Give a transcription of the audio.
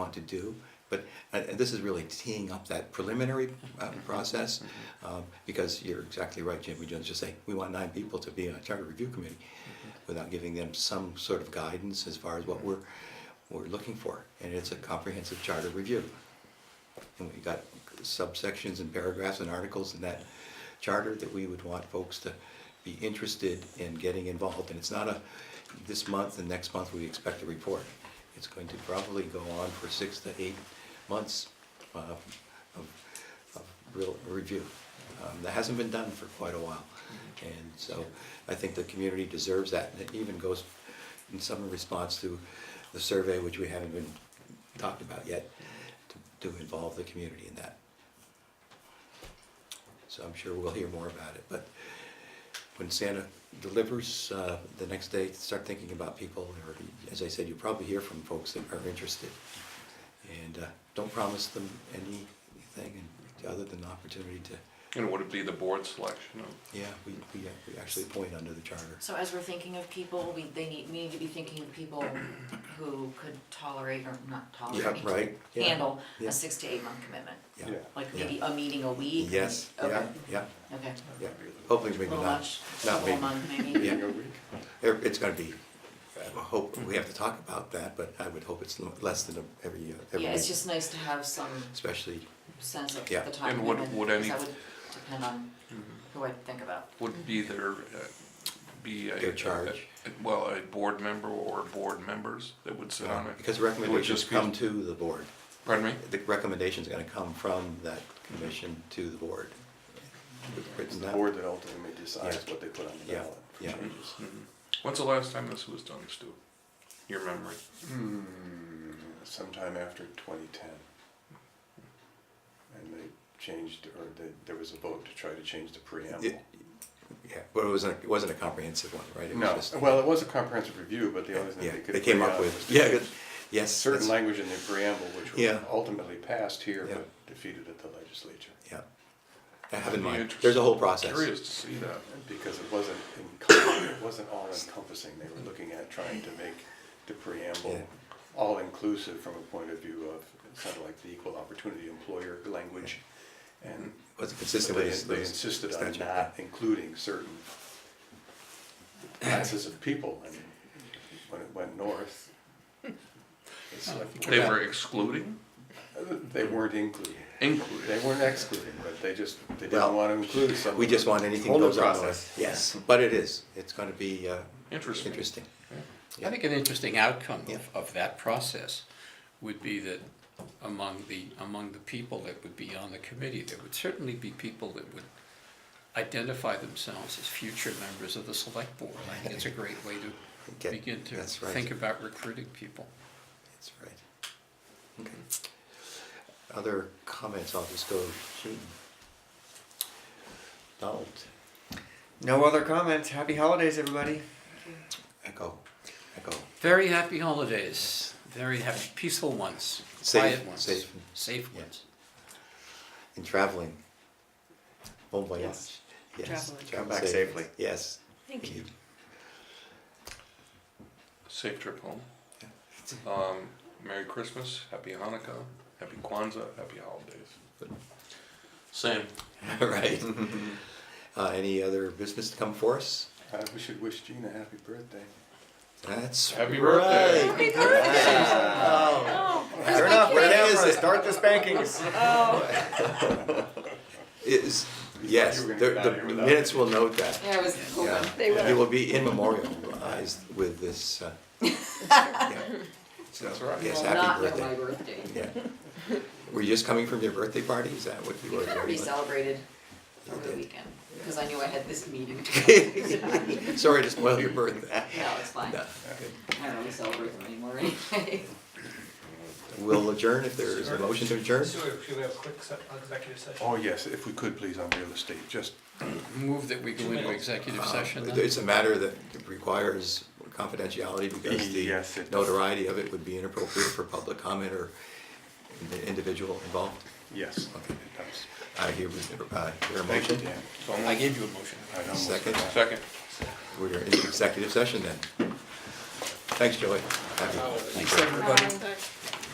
want to do, but, uh, and and this is really teeing up that preliminary uh, process, um, because you're exactly right, Jim, we just just say, we want nine people to be on a charter review committee, without giving them some sort of guidance as far as what we're, we're looking for, and it's a comprehensive charter review. And we got subsections and paragraphs and articles in that charter that we would want folks to be interested in getting involved. And it's not a, this month and next month we expect a report. It's going to probably go on for six to eight months uh, of, of real review. Um, That hasn't been done for quite a while. And so I think the community deserves that. And it even goes in some response to the survey, which we haven't been talked about yet, to, to involve the community in that. So I'm sure we'll hear more about it, but when Santa delivers, uh, the next day, start thinking about people, or, as I said, you'll probably hear from folks that are interested. And, uh, don't promise them anything other than the opportunity to, And would it be the board selection? yeah, we, we, uh, we actually appoint under the charter. So as we're thinking of people, we, they need, we need to be thinking of people who could tolerate or not tolerate. Yeah, right, yeah, Handle yeah. a six to eight month commitment, Yeah, like maybe a meeting a week? yes, yeah, Okay, yeah, okay. yeah, hopefully A maybe little not, much, a not me. whole month maybe? Yeah. There- It's gonna be, I hope, we have to talk about that, but I would hope it's l- less than a- every year, every Yeah, year, it's just nice to have some especially, sense of the Yeah. time And would- commitment, would because any- that would depend on who I think about. Would be there, uh, be a. Their charge. a- Well, a board member or board members that would sit on uh, it? because It would recommendations just be- come to the board. Pardon me? The recommendation's gonna come from that commission to the board. It's Written the down. board that ultimately decides Yeah. what they put on the Yeah. ballot for Yeah. changes. When's the last time this was done, Stu? Your memory? Hmm, sometime after twenty ten. And they changed, or they, there was a vote to try to change the preamble. It- Yeah, but it wasn't, it wasn't a comprehensive one, right? It was No, just- well, it was a comprehensive review, but the only thing Yeah, they could. they came agree up on with, was to yeah, change good, yes. Certain that's- language in the preamble, which was Yeah. ultimately passed here, Yeah. but defeated at the legislature. Yeah, I have in Be mind, interesting. there's a whole process. Curious to see that. Because it wasn't encompassing, it wasn't all encompassing, they were looking at trying to make the preamble all inclusive from a point of view of, it sounded like the equal opportunity employer language. And Was it they consistent they with this- this insisted on statute? not including certain classes of people, and when it went north, it's like, They were excluding? they weren't including. They Including. weren't excluding, but they just, they Well, didn't want to include some. We just want anything Whole new goes on process. north. Yes, but it is, it's gonna be uh, Interesting. interesting. I think an interesting outcome Yeah. of, of that process would be that among the, among the people that would be on the committee, there would certainly be people that would identify themselves as future members of the select board. I think it's a great way to Get- begin to that's right. think about recruiting people. That's right. Okay. Other comments, I'll just go, Gene. Donald, No other comments. Happy holidays, everybody. echo, echo. Very happy holidays, very happy, peaceful ones, Safe- quiet ones, safe. safe Yeah. ones. And traveling. Bon voyage. Yes. Yes. Traveling. travel Come back safely. Yes. Thank you. Safe trip home. Um, Merry Christmas, Happy Hanukkah, Happy Kwanzaa, Happy holidays. Same. All right. Uh, any other business to come for us? Uh, we should wish Gina happy birthday. That's Happy right. birthday. Happy birthday! Oh, where's Turn my off the cake? Where is camera. it? Start the spankings. Oh, Is, yes, You were the, gonna get out of the here without minutes me. will note that. Yeah, I was Yeah. hoping. They will. It will be in memorialized with this, uh, yeah. So, That's right. Yes, Well, not happy know my birthday. birthday. Yeah. Were you just coming from your birthday party? Is that what you We were? kind of doing? re-celebrated You over the did. weekend, because I knew I had this meeting. Sorry to spoil your birthday. No, it's fine. No. I don't really celebrate them anymore anyway. We'll adjourn if there is a motion to adjourn. So should we have a quick se- executive session? Oh, yes, if we could, please, on real estate, just Move that we go into executive session Uh, then? It's a matter that requires confidentiality because Yes, it the does. notoriety of it would be inappropriate for public comment or the individual involved. Yes. Okay. That was- I hear, uh, hear a Thank you, motion. Dan. So I moved. gave you a motion. I almost Second. forgot. Second. We're in executive session then. Thanks, Joey. Happy- Uh, Thanks, everybody. um,